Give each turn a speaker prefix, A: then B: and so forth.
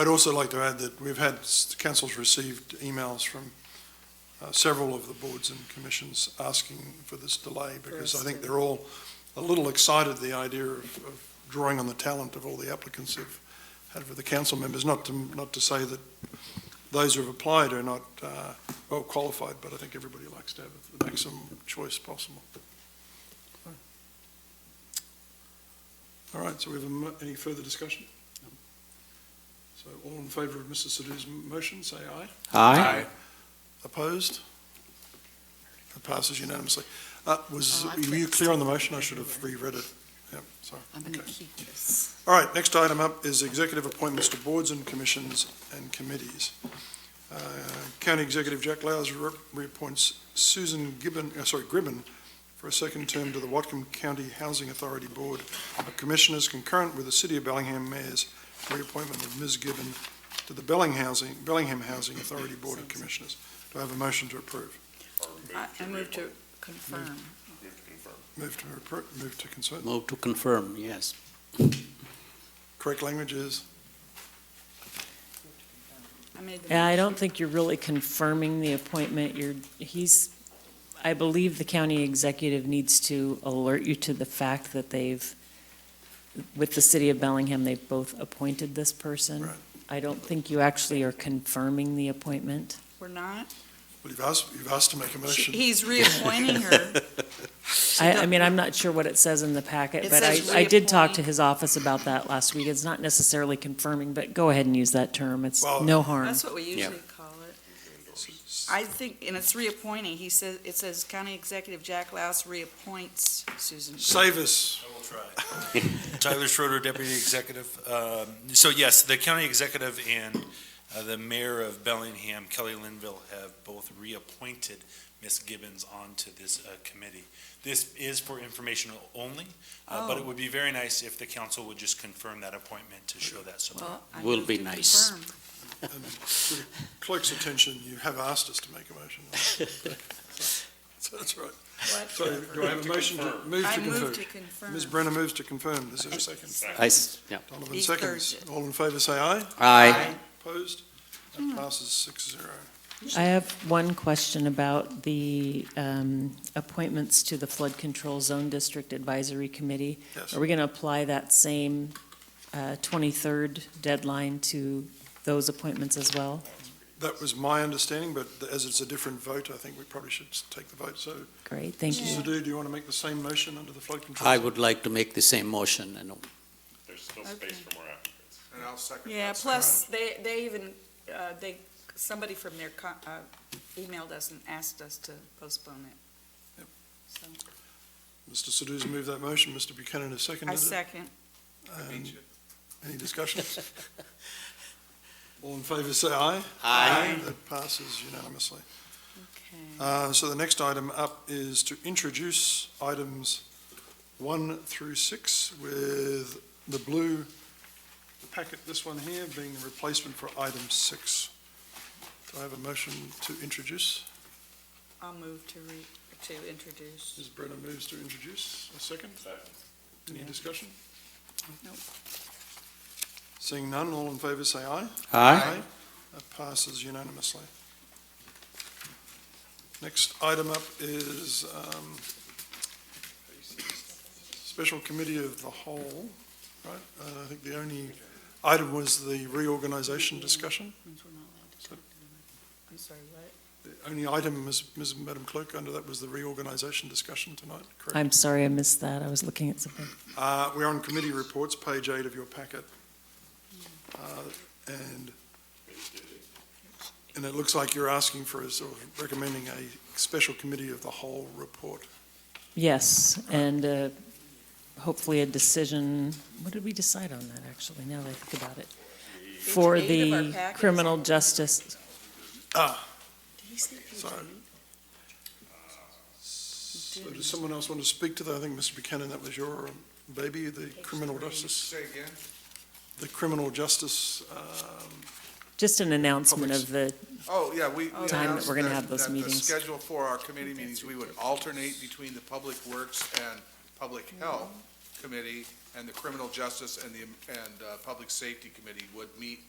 A: I'd also like to add that we've had, s- council's received emails from uh, several of the boards and commissions asking for this delay, because I think they're all a little excited, the idea of of drawing on the talent of all the applicants who've had for the council members, not to, not to say that those who've applied are not uh, well qualified, but I think everybody likes to have the maximum choice possible. All right, so we have a mo- any further discussion? So all in favour of Mr Sado's m- motion, say aye.
B: Aye.
A: Opposed? It passes unanimously. Uh, Was,
C: Oh, I
A: were you
C: fixed
A: clear on the motion? I should have reread it. Yep, sorry.
C: I'm going to
A: Okay.
C: keep this.
A: All right, next item up is executive appointments to boards and commissions and committees. Uh, County Executive Jack Lowes re- reappoints Susan Gibbon, uh, sorry, Gribben for a second term to the Watcom County Housing Authority Board of Commissioners concurrent with the City of Bellingham Mayor's reappointment of Ms. Gibbon to the Belling Housing, Bellingham Housing Authority Board of Commissioners. Do I have a motion to approve?
C: I I move to confirm.
A: Move to appro- move to consent.
B: Move to confirm, yes.
A: Correct language is,
C: I made the
D: Yeah, I don't
C: motion.
D: think you're really confirming the appointment. You're, he's, I believe the county executive needs to alert you to the fact that they've, with the city of Bellingham, they've both appointed this person.
A: Right.
D: I don't think you actually are confirming the appointment.
C: We're not?
A: well, you've asked, you've asked to make a
C: She-
A: motion.
C: He's reappointing her. She
D: I, I
C: don't-
D: mean, I'm not sure what it says in the packet,
C: It
D: but I,
C: says
D: I did talk to
C: reappoint.
D: his office about that last week. It's not necessarily confirming, but go ahead and use that term. It's
A: Well-
D: no harm.
C: That's what we usually call it. I think, and it's reappointing. He says, it says County Executive Jack Louse reappoints Susan.
A: Save us.
E: I will try. Tyler Schroeder, Deputy Executive. Um, So yes, the county executive and uh, the mayor of Bellingham, Kelly Linville, have both reappointed Ms. Gibbons onto this uh, committee. This is for informational only, uh, but
C: Oh.
E: it would be very nice if the council would just confirm that appointment to show that support.
C: Well, I
B: Will
C: move
B: be
C: to
B: nice.
C: confirm.
A: And for the Clerk's attention, you have asked us to make a motion. So that's right. So do I have a motion to move
C: I
A: to
C: move to
A: confirm?
C: confirm.
A: Ms. Brenner moves to confirm. Is there a second?
B: I, s- yeah.
A: Donovan
C: He
A: seconds.
C: thirds
A: All in favor, say aye.
B: Aye.
A: Opposed? That passes six zero.
D: I have one question about the um, appointments to the Flood Control Zone District Advisory Committee.
A: Yes.
D: Are we going to apply that same uh, 23rd deadline to those appointments as well?
A: That was my understanding, but as it's a different vote, I think we probably should take the vote. So,
D: Great, thank
A: Mr.
D: you.
A: Sado, do you want to make the same motion under the flood control?
B: I would like to make the same motion, and
F: There's still
C: Okay.
F: space for more applicants.
G: And I'll second
C: Yeah,
G: that.
C: plus, they, they even, uh, they, somebody from their, co- uh, emailed us and asked us to postpone it.
A: Yep.
C: So,
A: Mr. Sado's moved that motion. Mr. Buchanan has seconded
C: I
A: it.
C: second.
A: Um, Any discussions? All in favor, say aye.
B: Aye.
A: That passes unanimously.
C: Okay.
A: Uh, So the next item up is to introduce items one through six with the blue packet, this one here, being the replacement for item six. Do I have a motion to introduce?
C: I'll move to re, to introduce.
A: Ms. Brenner moves to introduce. A second? Any discussion?
C: Nope.
A: Seeing none, all in favor, say aye.
B: aye.
A: That passes unanimously. Next item up is um, Special Committee of the Whole, right? And I think the only item was the reorganization discussion.
C: Means we're not allowed to talk to them. I'm sorry, what?
A: The only item, Ms. Ms. Madam Clerk, under that was the reorganization discussion tonight, correct?
D: I'm sorry, I missed that. I was looking at something.
A: Uh, We're on committee reports, page eight of your packet. Uh, And, and it looks like you're asking for, a sort of recommending a special committee of the whole report.
D: Yes, and uh, hopefully a decision, what did we decide on that, actually, now that I think about it? For
C: eight of our
D: the
C: packets.
D: criminal justice,
E: Uh,
C: Did he say page
A: Sorry. So
C: eight?
A: does someone else want to speak to that? I think, Mr. Buchanan, that was your baby, the criminal justice,
G: Say again?
A: the criminal justice, um,
D: just an announcement of the
G: Oh, yeah, we. we
D: Time that
G: announced
D: we're gonna have those
G: that the
D: meetings.
G: schedule for our committee meetings, we would alternate between the Public Works and Public
D: Mm-hmm.
G: Health Committee, and the Criminal Justice and the, and uh, Public Safety Committee would meet